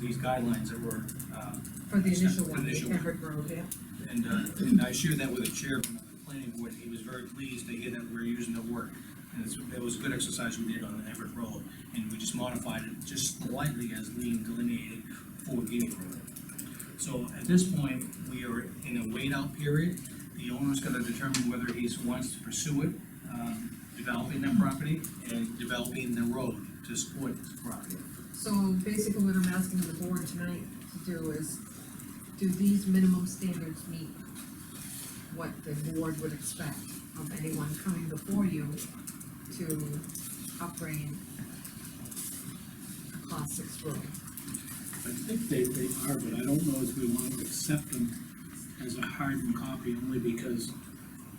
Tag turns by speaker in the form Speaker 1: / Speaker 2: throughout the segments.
Speaker 1: these guidelines that were, uh,
Speaker 2: For the initial
Speaker 1: For the
Speaker 2: one, the
Speaker 1: initial one.
Speaker 2: Everett Road, yeah.
Speaker 1: and, uh, and I shared that with the chairman of the planning board, and he was very pleased to hear that we're using the work. And it's, it was a good exercise we did on the Everett Road, and we just modified it just slightly as Lean delineated for Guinea Road. So at this point, we are in a wait-out period. The owner's gonna determine whether he wants to pursue it, um, developing that property and developing the road to support this property.
Speaker 2: So basically what I'm asking the board tonight to do is, do these minimum standards meet what the board would expect of anyone coming before you to upgrade a class six road?
Speaker 3: I think they, they are, but I don't know if we want to accept them as a hardened copy, only because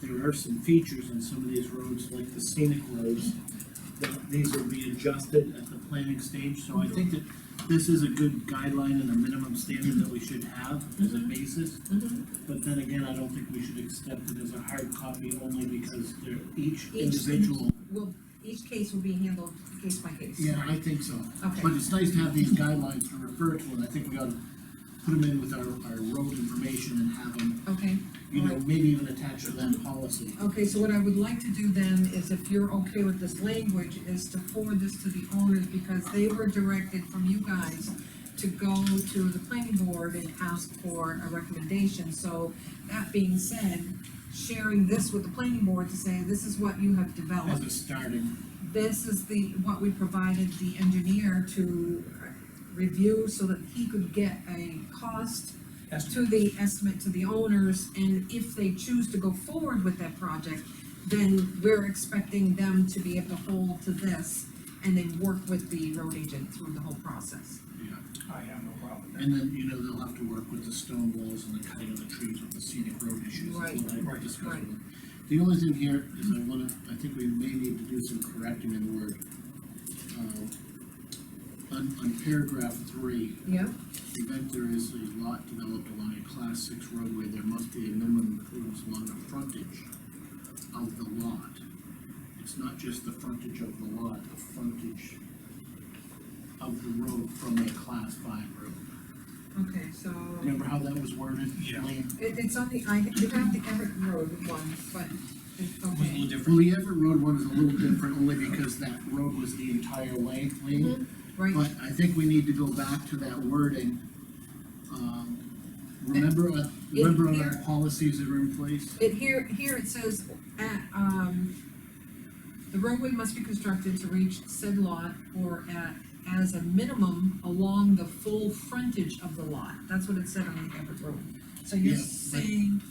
Speaker 3: there are some features in some of these roads, like the scenic roads, that these will be adjusted at the planning stage, so I think that this is a good guideline and a minimum standard that we should have as a basis. But then again, I don't think we should accept it as a hard copy, only because they're each individual.
Speaker 2: Will, each case will be handled case by case.
Speaker 3: Yeah, I think so.
Speaker 2: Okay.
Speaker 3: But it's nice to have these guidelines to refer to, and I think we ought to put them in with our, our road information and have them,
Speaker 2: Okay,
Speaker 3: you know, maybe even attach to that policy.
Speaker 2: okay, so what I would like to do then is if you're okay with this language, is to forward this to the owners because they were directed from you guys to go to the planning board and ask for a recommendation, so that being said, sharing this with the planning board to say, this is what you have
Speaker 3: As
Speaker 2: developed.
Speaker 3: a starting,
Speaker 2: This is the, what we provided the engineer to review so that he could get a cost to the estimate to the owners, and if they choose to go forward with that project, then we're expecting them to be able to hold to this, and then work with the road agent through the whole process.
Speaker 3: yeah,
Speaker 1: I have no problem with that.
Speaker 3: and then, you know, they'll have to work with the stone walls and the cutting of the trees with the scenic road issues.
Speaker 2: Right,
Speaker 3: That's what I
Speaker 1: right,
Speaker 3: discussed
Speaker 2: right.
Speaker 3: with them. The only thing here is I wanna, I think we may need to do some correcting in the word. uh, On, on paragraph three,
Speaker 2: Yeah,
Speaker 3: event there is a lot developed along a class six roadway, there must be a minimum improvements along the frontage of the lot. It's not just the frontage of the lot, the frontage of the road from a class five road.
Speaker 2: okay, so,
Speaker 3: Remember how that was worded?
Speaker 1: Yeah.
Speaker 3: Lean?
Speaker 2: it, it's on the, I, you have the Everett Road one, but, it-
Speaker 1: It was a little
Speaker 2: okay,
Speaker 3: Well,
Speaker 1: different.
Speaker 3: the Everett Road one is a little different, only because that road was the entire length, Lean.
Speaker 2: right,
Speaker 3: But I think we need to go back to that wording. Um, Remember, uh, remember on our policies that are in place?
Speaker 2: it, here, here it says, at, um, the roadway must be constructed to reach said lot or at, as a minimum along the full frontage of the lot. That's what it said on the Everett Road. So you're
Speaker 3: Yeah, but-
Speaker 2: saying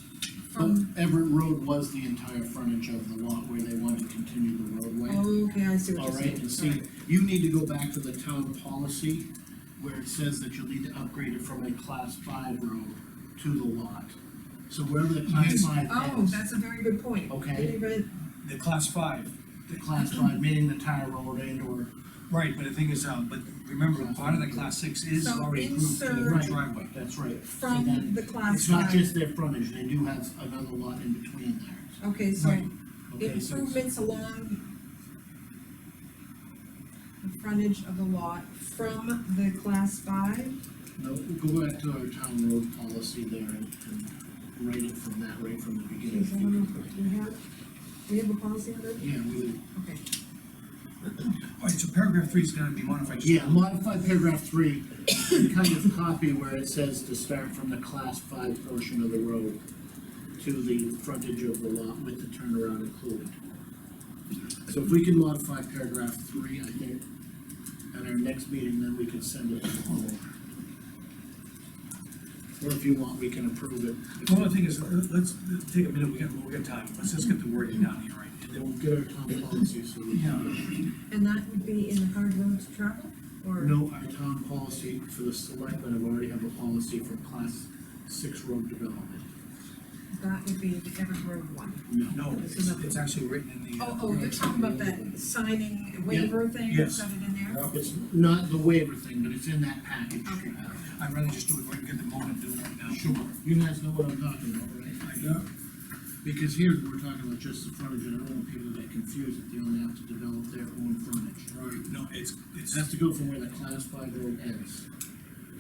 Speaker 3: But
Speaker 2: from,
Speaker 3: Everett Road was the entire frontage of the lot where they wanted to continue the roadway.
Speaker 2: Oh, okay, I see what
Speaker 3: Oh, All
Speaker 2: you're
Speaker 3: right, and
Speaker 2: saying.
Speaker 3: see, you need to go back to the town policy where it says that you'll need to upgrade it from a class five road to the lot. So wherever the class five
Speaker 2: Oh,
Speaker 3: ends,
Speaker 2: that's a very good point.
Speaker 3: Okay.
Speaker 2: Didn't even-
Speaker 1: The class five,
Speaker 3: the class five, meaning the tire road and or,
Speaker 1: Right, but the thing is, um, but remember, part of the class six is
Speaker 2: So
Speaker 1: already approved for the
Speaker 2: insert-
Speaker 1: driveway.
Speaker 3: that's right. So
Speaker 2: From
Speaker 3: then
Speaker 2: the class
Speaker 3: It's not
Speaker 2: five.
Speaker 3: just their frontage, they do have another lot in between there.
Speaker 2: Okay, so
Speaker 1: Right.
Speaker 3: Okay, so it's-
Speaker 2: improvements along the frontage of the lot from the class five?
Speaker 3: No, go back to our town road policy there and, and write it from that, right from the beginning.
Speaker 2: Is that enough? Do you have, do you have a policy on that?
Speaker 3: Yeah, we would,
Speaker 2: Okay,
Speaker 1: All right, so paragraph three is gonna be modified. just-
Speaker 3: yeah, modify paragraph three, and kind of copy where it says to start from the class five portion of the road to the frontage of the lot with the turnaround included. So if we can modify paragraph three, I think, at our next meeting, then we can send it to the homeowner. Or if you want, we can approve it.
Speaker 1: Well, the thing is, let- let's take a minute, we got, we got time, let's just get the wording down here, right? And then
Speaker 3: Then we'll get our town policy, so we can.
Speaker 2: and that would be in the hard road to travel, or?
Speaker 3: No, our town policy for the selectmen, I've already have a policy for class six road development.
Speaker 2: That would be the Everett Road one.
Speaker 1: No, it's, it's actually written in the. uh,
Speaker 2: Oh, oh, you're talking about that signing waiver thing, you
Speaker 1: Yes.
Speaker 2: got it in there?
Speaker 3: It's not the waiver thing, but it's in that package.
Speaker 2: Okay.
Speaker 1: I'd rather just do it right, get the moment, do it right now.
Speaker 3: Sure, you guys know what I'm talking about, right?
Speaker 1: I do.
Speaker 3: Because here, we're talking about just the frontage, and I don't want people to get confused that they only have to develop their own frontage. Right.
Speaker 1: No, it's, it's,
Speaker 3: It has to go from where the class five road ends.